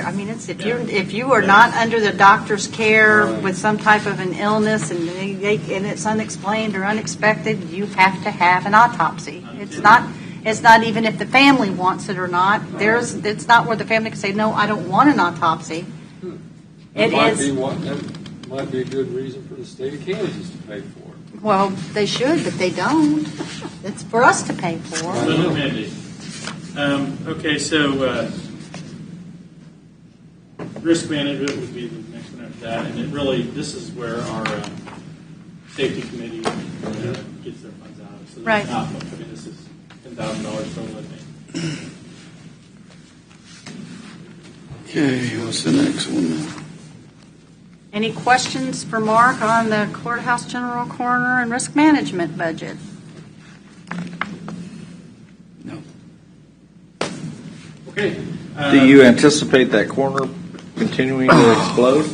I mean, it's, if you're, if you are not under the doctor's care Right. with some type of an illness and they, they- and it's unexplained or unexpected, you have to have an autopsy. It's not, it's not even if the family wants it or not, there's, it's not where the family can say, no, I don't want an autopsy. That It Hmm. might is- be one- That might be a good reason for the state of Kansas to pay for it. Well, they should, but they don't. It's for us to pay for. Little Mindy. Um, okay, so, uh, risk management would be the next one after that, and it really, this is where our, uh, safety committee, uh, gets their funds out of. So this Right. is not much. I mean, this is ten thousand dollars for a living. Okay, what's the next one? Any questions for Mark on the courthouse general coroner and risk management budget? No. Okay. uh, Do you anticipate that corner continuing to explode?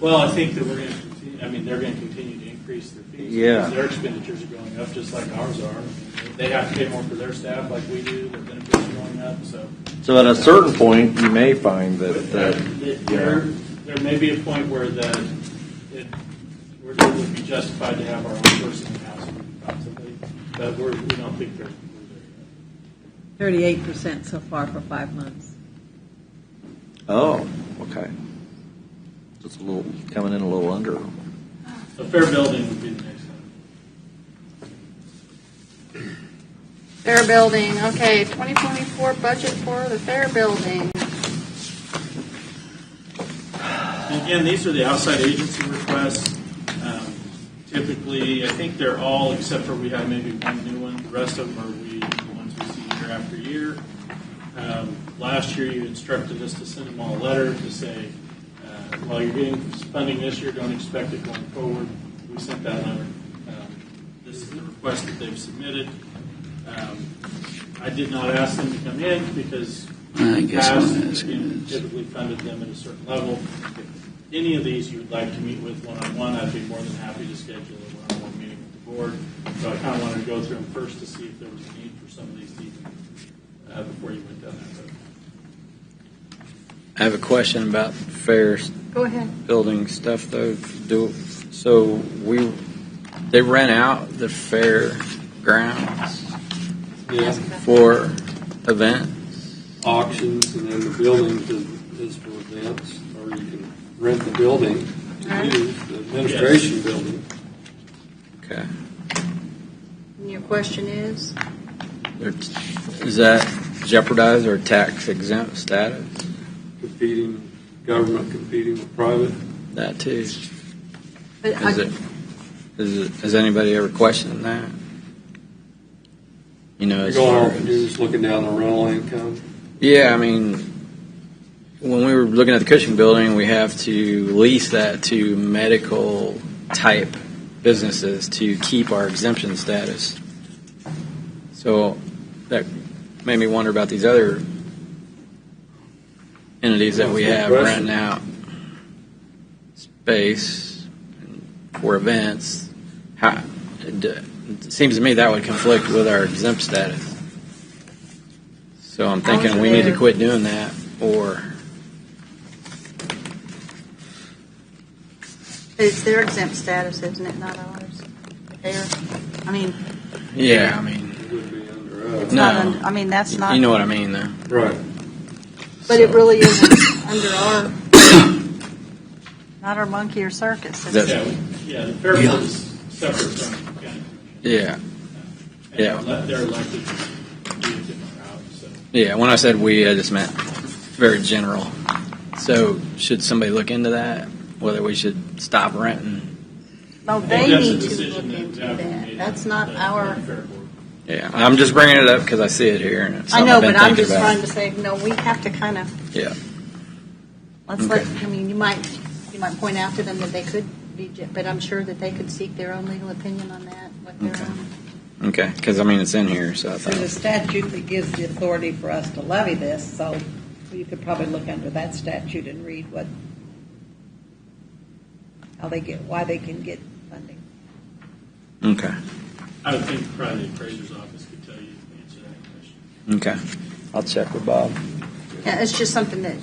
Well, I think that we're going to continue, I mean, they're going to continue to increase their fees. Yeah. because Their expenditures are going up, just like ours are. They have to pay more for their staff like we do, their benefits are going up, so. So at a certain point, you may find that, that That There, there may be a point where the, it, where it would be justified to have our own person in-house possibly, but we're, we don't think there's. Thirty-eight percent so far for five months. oh, okay. Just a little, coming in a little under. So fair building would be the next one. Fair building, okay, 2024 budget for the fair building. And Again, these are the outside agency requests. Um, Typically, I think they're all, except for we have maybe one new one. The rest of them are we, the ones we see year after year. Um, Last year, you instructed us to send them all a letter to say, uh, while you're getting funding this year, don't expect it going forward. We sent that letter. Um, This is the request that they've submitted. Um, I did not ask them to come in because I in the guess I'm past, asking you this. typically funded them at a certain level. If Any of these you would like to meet with one-on-one, I'd be more than happy to schedule a one-on-one meeting with the board. So I kind of wanted to go through them first to see if there was a need for some of these to even, uh, before you went down that road. I have a question about fair Go ahead. building stuff though. Do, so we, they rent out the fair grounds Yeah, for event? auctions and then the building is- is for events, or you can rent the building, Uh-huh. to use the administration building. Okay. And your question is? They're- Is that jeopardize or tax exempt status? competing, government competing with private. That too. But I- Is it, is it, has anybody ever questioned that? You know, You're as far going off as. and you're just looking down the rental income. Yeah, I mean, when we were looking at the Cushing building, we have to lease that to medical type businesses to keep our exemption status. So that made me wonder about these other entities that we That's a good have question. renting out space for events. How, it, d- it seems to me that would conflict with our exempt status. So I'm thinking we need to quit doing that or. It's their exempt status, isn't it, not ours? Fair, I mean, Yeah, I mean, It would be under us. it's not, No. under- I mean, that's not, you know what I mean, though. Right. but it really isn't under our, not our monkey or circus. is it? That- Yeah, we- Yeah, the fair board is separate from the county. commission. Yeah, And Yeah. ele- They're elected to do a different route, so. yeah. When I said we, I just meant very general. So should somebody look into that? Whether we should stop renting? No, I think they that's a need to decision look that into would have to be that. made That's on not the- our, the fair board. Yeah, I'm just bringing it up because I see it here and it's I something know, I've been but I'm thinking just about. trying to say, no, we have to kind of, Yeah, let's let, Okay. I mean, you might, you might point out to them that they could be, j- but I'm sure that they could seek their own legal opinion on that, what Okay. their own. okay. Because I mean, it's in here, so I There's a thought. statute that gives the authority for us to levy this, so you could probably look under that statute and read what, how they get, why they can get funding. Okay, I would think probably the appraiser's office could tell you the answer to that question. okay. I'll check with Bob. Yeah, it's just something that,